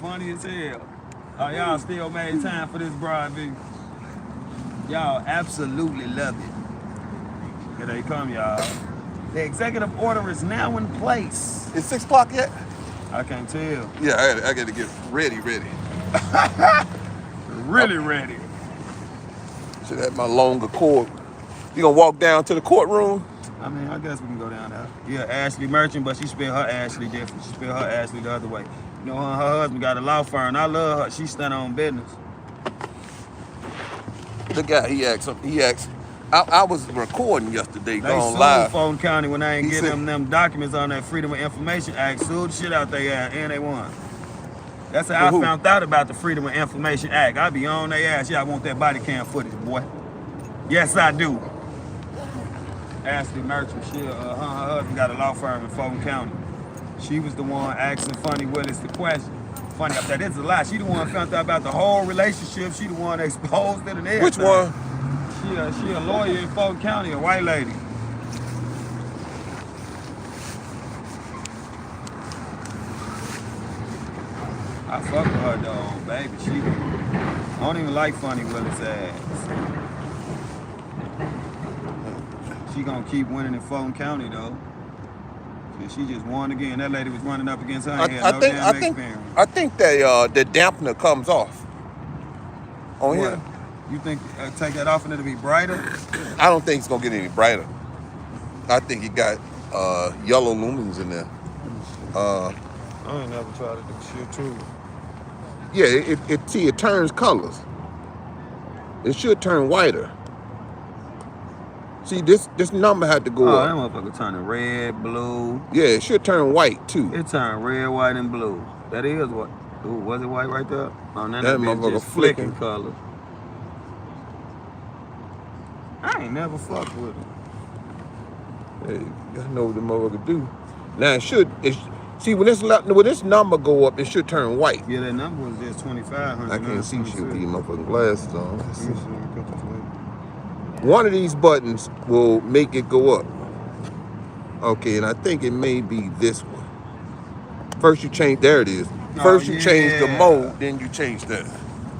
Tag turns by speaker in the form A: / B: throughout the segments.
A: Funny as hell. Oh, y'all still made time for this broad view. Y'all absolutely love it. Here they come, y'all. The executive order is now in place.
B: It's six o'clock yet?
A: I can't tell.
B: Yeah, I gotta, I gotta get ready, ready.
A: Really ready.
B: Should have my longer cord. You gonna walk down to the courtroom?
A: I mean, I guess we can go down there. Yeah, Ashley Merchant, but she spelled her Ashley different. She spelled her Ashley the other way. You know, her, her husband got a law firm. I love her. She stand on business.
B: The guy, he asked, him- he asked, I, I was recording
A: They
B: yesterday, going
A: sued
B: live.
A: Fulton County when I ain't
B: He
A: get
B: said-
A: them them documents on that Freedom of Information Act. Sued the shit out they ass and they won. That's how
B: For who?
A: I found out about the Freedom of Information Act. I be on their ass. Yeah, I want that body cam footage, boy. Yes, I do. Ashley Merchant, she, uh, her, her husband got a law firm in Fulton County. She was the one asking Funny Willis the question. Funny, I said, this is a lie. She the one found out about the whole relationship. She the one exposed it and everything.
B: Which one?
A: She a, she a lawyer in Fulton County, a white lady. I fuck with her though, baby. She, I don't even like Funny Willis ass. She gonna keep winning in Fulton County though. And she just won again. That lady was running up against her.
B: I,
A: and had
B: I
A: no
B: think,
A: damn
B: I think,
A: experience.
B: I think that uh, the dampener comes off. On here,
A: What? You think uh, take that off and it'll be brighter?
B: I don't think it's gonna get any brighter. I think it got uh, yellow lumens in there. Uh,
A: I ain't never tried to do shit too.
B: yeah, it, it, it see it turns colors. It should turn whiter. See this this number had to go
A: Oh, that
B: up.
A: motherfucker turning red, blue.
B: Yeah, it should turn white too.
A: It turned red, white, and blue. That is what. Ooh, was it white right there? Oh, now
B: That
A: that, bitch
B: motherfucker
A: just flicking
B: flicking.
A: color. I ain't never fucked with it.
B: Hey, I know what the motherfucker do. Now it should it sh- see when this la- when this number go up, it should turn white.
A: Yeah, that number was just 2,500.
B: I can't see shit with these motherfucking glasses on. Let's see.
A: you.
B: One of these buttons will make it go up. Okay, and I think it may be this one. First you change, there it is.
A: Oh,
B: First you change the
A: yeah.
B: mode, then you change that.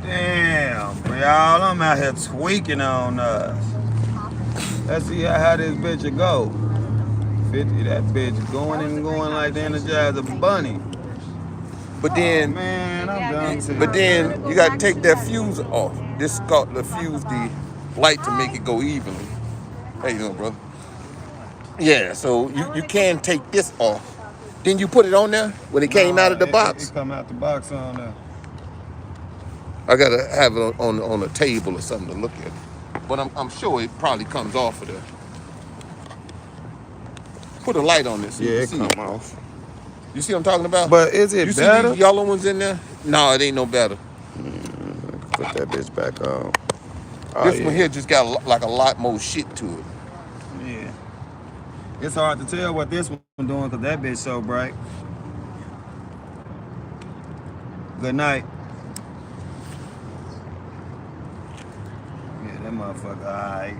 A: Damn, bro, y'all, I'm out here tweaking on us. Let's see how, how this bitch will go. 50, that bitch going and going like the Energizer Bunny.
B: But then,
A: Oh, Man, I'm done too.
B: but then you gotta take that fuse off. This is called the fuse, the light to make it go evenly. Hey, you doing, brother? Yeah, so you, you can take this off. Then you put it on there when it came out of the
A: Nah, it-
B: box.
A: It, it come out the box on there.
B: I gotta have it on, on on a table or something to look at. But I'm, I'm sure it probably comes off of there. Put a light on this. so you can see
A: off.
B: You see what I'm talking about?
A: But is
B: you
A: it
B: see
A: better?
B: these yellow ones in there? No, it ain't no better.
A: Put that bitch back on. Oh,
B: this one here just got a, lo- like a lot more shit to it.
A: Yeah. It's hard to tell what this one doing because that bitch so bright. Good night. Yeah, that motherfucker, alright.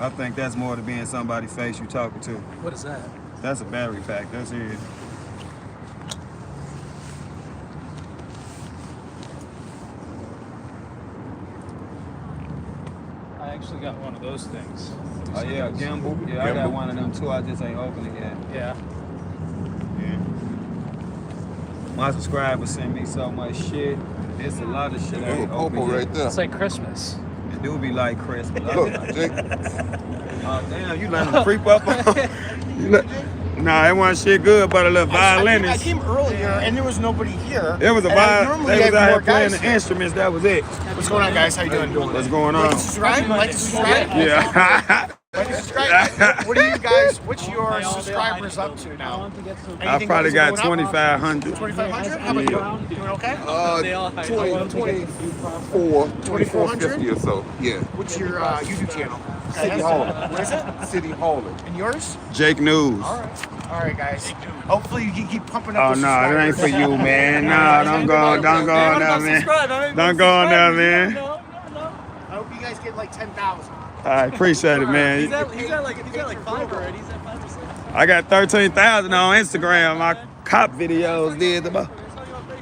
A: I think that's more to being somebody's face you talking to.
C: What is that?
A: That's a battery pack. That's it.
C: I actually got one of those things.
A: Oh yeah, gimbal. Yeah, I got
B: Gimbal.
A: one of them too. I just ain't opened it yet.
C: Yeah.
A: Yeah. My subscribers send me so much shit. It's a lot of shit. I
B: Little
A: ain't
B: popo
A: opened
B: right
A: yet.
B: there.
C: It's like Christmas.
A: It do be like Christmas. I be
B: Look,
A: like,
B: Jake,
A: Oh damn, you letting them creep up on you let- Nah, that wasn't shit good but a little
D: I came- I
A: violinist.
D: came earlier and there was nobody here.
A: It was a
D: And I
A: violin.
D: normally
A: They was
D: have
A: out here
D: more
A: playing
D: guys
A: the instruments. That was it.
D: here. What's going on, guys? How you doing?
A: What's going on?
D: Like to subscribe? Like to subscribe?
A: Yeah.
D: Like to subscribe? What are you guys? What's your subscribers up to now?
A: I probably got 2,500.
D: 2,500? How about you? Doing okay?
B: uh, 20, 24, 2450 or so. Yeah.
D: What's your uh, YouTube channel?
B: City
D: Guys?
B: Hauler.
D: What is it?
B: City Hauler.
D: And yours?
A: Jake News.
D: All right. All right, guys. Hopefully you keep pumping
A: Oh
D: up.
A: no,
D: those
A: that ain't for
D: subscribers.
A: you, man. No, don't go, don't go on there, man. Don't go on there, man. All
D: I hope you guys get like 10,000.
A: right, appreciate it,
E: He's
A: man.
E: at, he's at like he's at like five already. He's at five or six.
A: I got thirteen thousand on Instagram. My cop videos did about